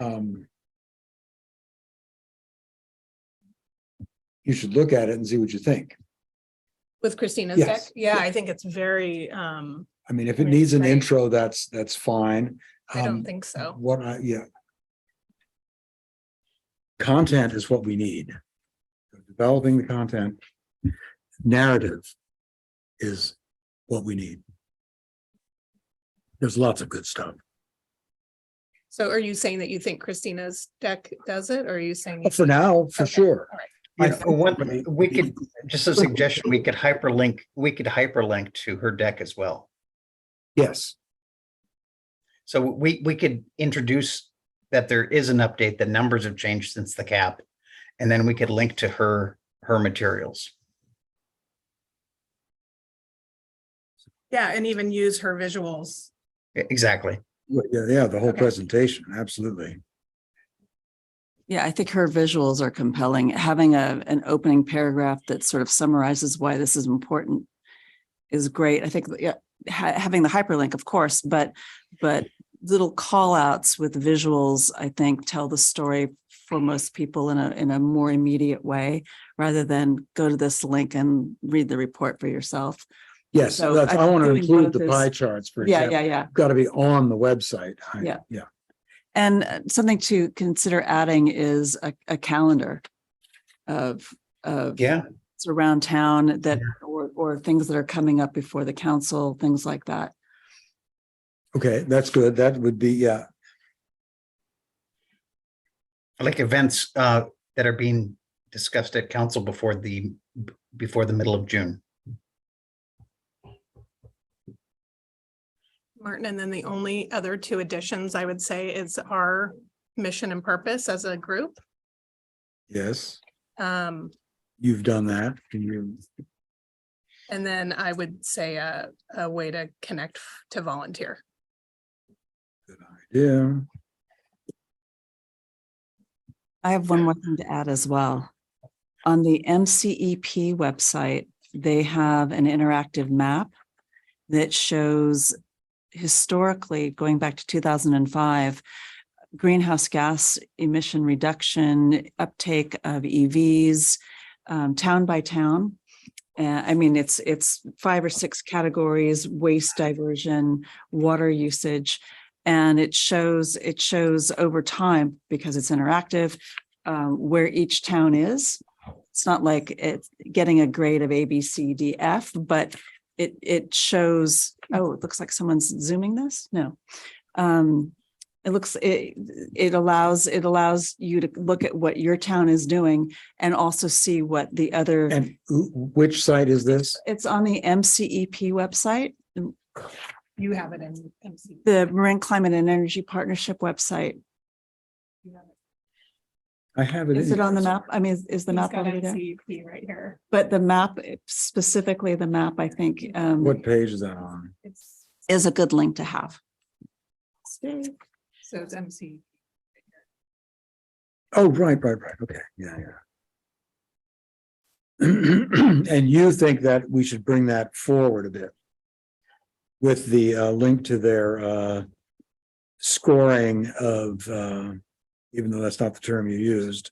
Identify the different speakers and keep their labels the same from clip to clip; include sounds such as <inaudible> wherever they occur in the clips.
Speaker 1: um, you should look at it and see what you think.
Speaker 2: With Christina's deck?
Speaker 1: Yes.
Speaker 2: Yeah, I think it's very, um,
Speaker 1: I mean, if it
Speaker 2: Right,
Speaker 1: needs an
Speaker 2: right.
Speaker 1: intro, that's, that's fine.
Speaker 2: I don't
Speaker 1: Um,
Speaker 2: think so.
Speaker 1: What I, yeah. Content is what we need. Developing the content. Narrative is what we need. There's lots of good stuff.
Speaker 2: So are you saying that you think Christina's deck does it? Or are you saying? you
Speaker 1: For now, for
Speaker 2: Okay,
Speaker 1: sure.
Speaker 2: all right.
Speaker 1: You
Speaker 3: I
Speaker 1: know,
Speaker 3: know one, we could, just a suggestion, we could hyperlink, we could hyperlink to her deck as well.
Speaker 1: Yes,
Speaker 3: So we, we could introduce that there is an update, the numbers have changed since the cap. And then we could link to her, her materials.
Speaker 4: Yeah, and even use her visuals.
Speaker 3: E- Exactly.
Speaker 1: yeah, yeah, the whole
Speaker 2: Okay.
Speaker 1: presentation, absolutely.
Speaker 5: Yeah, I think her visuals are compelling. Having a, an opening paragraph that sort of summarizes why this is important is great. I think, yeah, ha- having the hyperlink, of course, but, but little call outs with visuals, I think, tell the story for most people in a, in a more immediate way, rather than go to this link and read the report for yourself.
Speaker 1: Yes,
Speaker 5: So
Speaker 1: that's,
Speaker 5: I
Speaker 1: I want to
Speaker 5: think
Speaker 1: include
Speaker 5: both
Speaker 1: the
Speaker 5: is-
Speaker 1: pie charts, for
Speaker 5: Yeah, yeah,
Speaker 1: example.
Speaker 5: yeah.
Speaker 1: Got to be on the website. I-
Speaker 5: Yeah.
Speaker 1: Yeah,
Speaker 5: And uh, something to consider adding is a, a calendar of, of
Speaker 3: Yeah.
Speaker 5: events around town that, or, or things that are coming up before the council, things like that.
Speaker 1: okay, that's good. That would be, yeah,
Speaker 3: Like events uh, that are being discussed at council before the, before the middle of June.
Speaker 4: Martin, and then the only other two additions I would say is our mission and purpose as a group.
Speaker 1: yes,
Speaker 4: Um,
Speaker 1: you've done that. Can you?
Speaker 4: and then I would say a, a way to connect f- to volunteer.
Speaker 1: Good idea.
Speaker 5: I have one more thing to add as well. On the MCEP website, they have an interactive map that shows historically, going back to two thousand and five, greenhouse gas emission reduction, uptake of EVs, um, town by town. Uh, I mean, it's, it's five or six categories, waste diversion, water usage. And it shows, it shows over time because it's interactive, um, where each town is. It's not like it's getting a grade of A, B, C, D, F, but it, it shows, oh, it looks like someone's zooming this? No. Um, it looks, it, it allows, it allows you to look at what your town is doing and also see what the other
Speaker 1: And who- which site is this?
Speaker 5: it's on the MCEP website,
Speaker 4: You have it in MC.
Speaker 5: the Marin Climate and Energy Partnership website.
Speaker 1: I have it.
Speaker 5: Is
Speaker 1: in
Speaker 5: it on the
Speaker 1: here.
Speaker 5: map? I mean, is- is the map already
Speaker 4: E
Speaker 5: there?
Speaker 4: right here.
Speaker 5: But the map, specifically the map, I think, um,
Speaker 1: What page is that on?
Speaker 4: It's,
Speaker 5: is a good link to have.
Speaker 4: so it's MC.
Speaker 1: Oh, right, right, right. Okay, yeah, yeah. <clears throat> And you think that we should bring that forward a bit? With the uh link to their uh scoring of uh, even though that's not the term you used.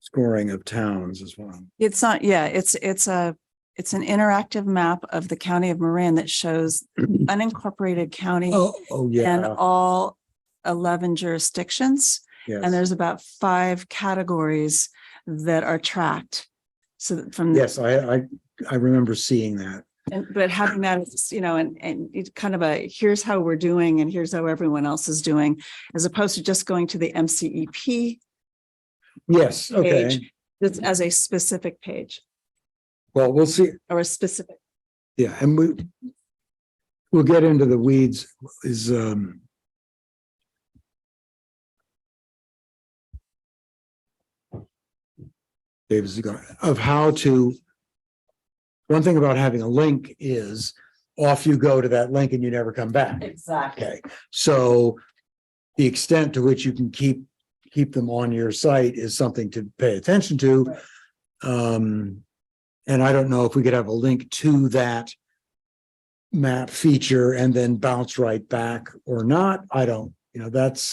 Speaker 1: Scoring of towns as well.
Speaker 5: It's not, yeah, it's, it's a, it's an interactive map of the county of Marin that
Speaker 1: <clears throat>
Speaker 5: shows unincorporated county
Speaker 1: Oh, oh,
Speaker 5: and
Speaker 1: yeah,
Speaker 5: all eleven jurisdictions. And
Speaker 1: yes,
Speaker 5: there's about five categories that are tracked. So that from,
Speaker 1: yes, I I I remember seeing that.
Speaker 5: and- but having that, as, you know, and, and it's kind of a, here's how we're doing and here's how everyone else is doing, as opposed to just going to the MCEP
Speaker 1: Yes, okay.
Speaker 5: page, that's as a specific page
Speaker 1: Well, we'll see.
Speaker 5: or a specific.
Speaker 1: Yeah, and we we'll get into the weeds is um Davis of how to one thing about having a link is off you go to that link and you never come back.
Speaker 5: Exactly.
Speaker 1: Okay, so the extent to which you can keep, keep them on your site is something to pay attention to.
Speaker 5: Right.
Speaker 1: Um, and I don't know if we could have a link to that map feature and then bounce right back or not. I don't, you know, that's